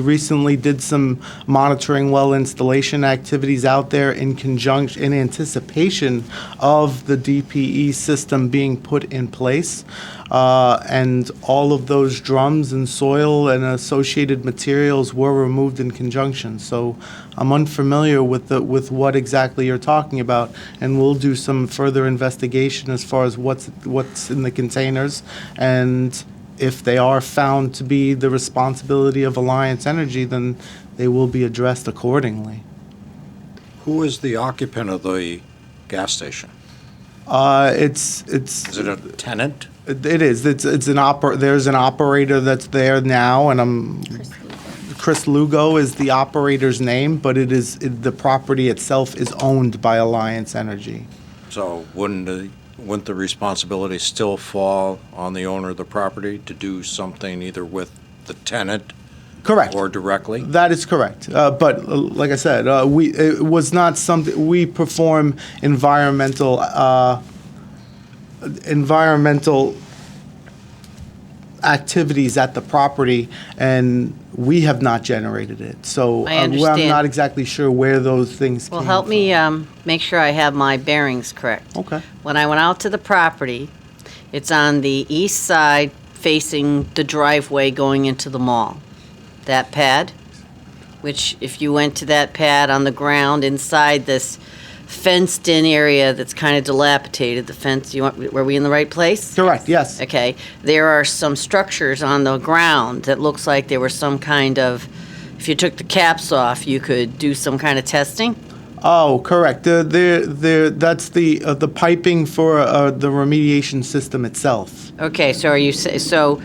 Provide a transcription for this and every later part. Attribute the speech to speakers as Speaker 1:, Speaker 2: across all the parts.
Speaker 1: We recently did some monitoring well installation activities out there in conjunction, in anticipation of the DPE system being put in place. Uh, And all of those drums and soil and associated materials were removed in conjunction. So I'm unfamiliar with the, with what exactly you're talking about, and we'll do some further investigation as far as what's, what's in the containers and if they are found to be the responsibility of Alliance Energy, then they will be addressed accordingly.
Speaker 2: Who is the occupant of the gas station?
Speaker 1: Uh, it's, it's,
Speaker 2: Is it a tenant?
Speaker 1: it is, it's, it's an oper, there's an operator that's there now, and I'm, Chris Lugo is the operator's name, but it is, it- the property itself is owned by Alliance Energy.
Speaker 2: So wouldn't the, wouldn't the responsibility still fall on the owner of the property to do something either with the tenant
Speaker 1: Correct.
Speaker 2: or directly?
Speaker 1: That is correct. Uh, but uh, like I said, uh, we it was not something we perform environmental uh, environmental activities at the property, and we have not generated it. So uh,
Speaker 3: I
Speaker 1: well, I'm
Speaker 3: understand.
Speaker 1: not exactly sure where those things.
Speaker 3: Well,
Speaker 1: came
Speaker 3: help me
Speaker 1: from.
Speaker 3: um, make sure I have my bearings correct.
Speaker 1: Okay.
Speaker 3: When I went out to the property, it's on the east side facing the driveway going into the mall. That pad, which if you went to that pad on the ground inside this fenced-in area that's kind of dilapidated, the fence, you want, were we in the right place?
Speaker 1: Correct. Yes.
Speaker 3: uh, Okay, there are some structures on the ground that looks like there was some kind of, if you took the caps off, you could do some kind of testing?
Speaker 1: Oh, correct. The, the, the, that's the uh, the piping for uh, the remediation system itself.
Speaker 3: Okay, so are you, sa- so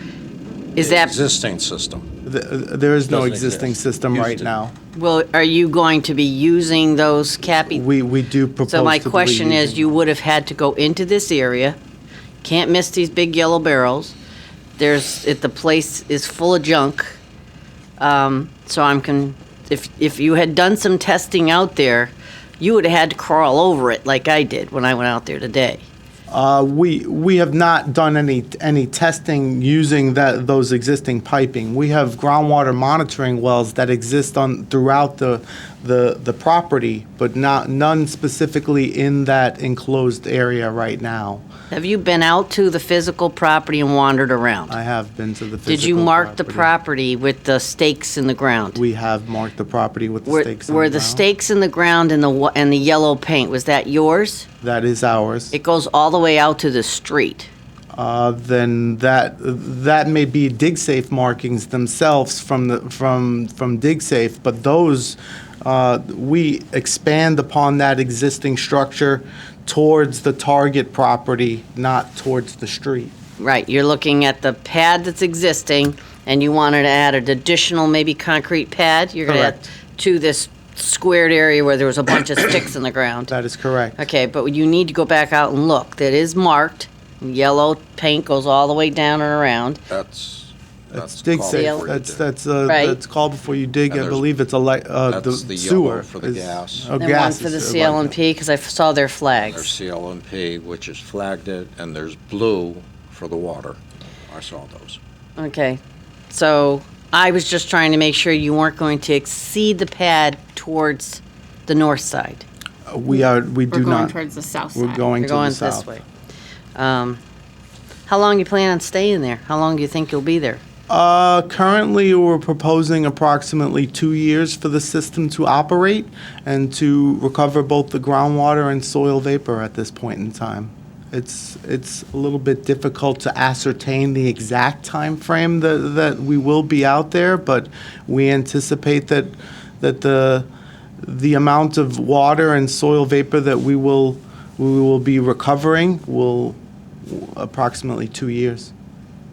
Speaker 3: is
Speaker 2: The
Speaker 3: that,
Speaker 2: Existing system.
Speaker 1: The, uh, there is no
Speaker 2: Doesn't
Speaker 1: existing
Speaker 2: exist.
Speaker 1: system
Speaker 2: Used
Speaker 1: right
Speaker 2: to-
Speaker 1: now.
Speaker 3: well, are you going to be using those cappy?
Speaker 1: We, we do propose
Speaker 3: So my
Speaker 1: to be
Speaker 3: question is,
Speaker 1: using-
Speaker 3: you would have had to go into this area, can't miss these big yellow barrels. There's, if the place is full of junk. Um, so I'm con, if, if you had done some testing out there, you would have had to crawl over it like I did when I went out there today.
Speaker 1: Uh, we, we have not done any, any testing using that, those existing piping. We have groundwater monitoring wells that exist on, throughout the, the, the property, but not, none specifically in that enclosed area right now.
Speaker 3: Have you been out to the physical property and wandered around?
Speaker 1: I have been to the physical
Speaker 3: Did you mark the
Speaker 1: property.
Speaker 3: property with the stakes in the ground?
Speaker 1: We have marked the property with the
Speaker 3: Were,
Speaker 1: stakes on
Speaker 3: were the
Speaker 1: ground.
Speaker 3: stakes in the ground and the, wa- and the yellow paint, was that yours?
Speaker 1: That is ours.
Speaker 3: It goes all the way out to the street.
Speaker 1: uh, then that that may be DigSafe markings themselves from the from from DigSafe, but those uh, we expand upon that existing structure towards the target property, not towards the street.
Speaker 3: Right, you're looking at the pad that's existing and you wanted to add an additional maybe concrete pad? You're gonna add
Speaker 1: Correct.
Speaker 3: to this squared area where there was a bunch of sticks in the ground?
Speaker 1: That is correct.
Speaker 3: Okay, but you need to go back out and look. That is marked. Yellow paint goes all the way down and around.
Speaker 2: That's, that's.
Speaker 1: It's dig
Speaker 2: called
Speaker 1: safe.
Speaker 2: for you
Speaker 1: That's
Speaker 2: to-
Speaker 1: that's uh,
Speaker 3: Right.
Speaker 1: that's called before you dig.
Speaker 2: And
Speaker 1: I
Speaker 2: there's-
Speaker 1: believe it's a li- uh,
Speaker 2: that's
Speaker 1: the
Speaker 2: the yellow
Speaker 1: sewer
Speaker 2: for the
Speaker 1: is-
Speaker 2: gas.
Speaker 1: oh,
Speaker 3: And one
Speaker 1: gas
Speaker 3: for
Speaker 1: is,
Speaker 3: the
Speaker 1: uh,
Speaker 3: CLMP, because I f- saw their
Speaker 2: There's
Speaker 3: flags.
Speaker 2: CLMP, which has flagged it, and there's blue for the water. I saw those.
Speaker 3: Okay. So I was just trying to make sure you weren't going to exceed the pad towards the north side.
Speaker 1: uh, We are we
Speaker 4: We're
Speaker 1: do
Speaker 4: going
Speaker 1: not.
Speaker 4: towards the south side.
Speaker 1: We're going
Speaker 3: You're
Speaker 1: to the
Speaker 3: going
Speaker 1: south.
Speaker 3: this way. Um, How long you plan on staying there? How long do you think you'll be there?
Speaker 1: Uh, currently, we're proposing approximately two years for the system to operate and to recover both the groundwater and soil vapor at this point in time. It's, it's a little bit difficult to ascertain the exact timeframe that, that we will be out there, but we anticipate that, that the, the amount of water and soil vapor that we will, we will be recovering will approximately two years.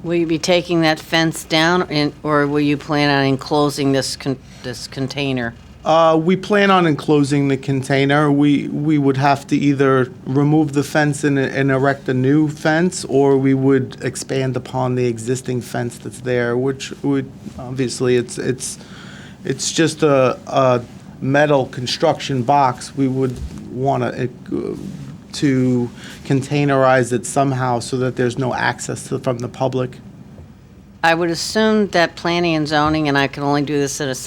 Speaker 3: Will you be taking that fence down, and- or will you plan on enclosing this con- this container?
Speaker 1: Uh, we plan on enclosing the container. We, we would have to either remove the fence and, and erect a new fence, or we would expand upon the existing fence that's there, which would, obviously, it's, it's, it's just a, a metal construction box. We would want to, to containerize it somehow so that there's no access to, from the public.
Speaker 3: I would assume that planning and zoning, and I can only do this in a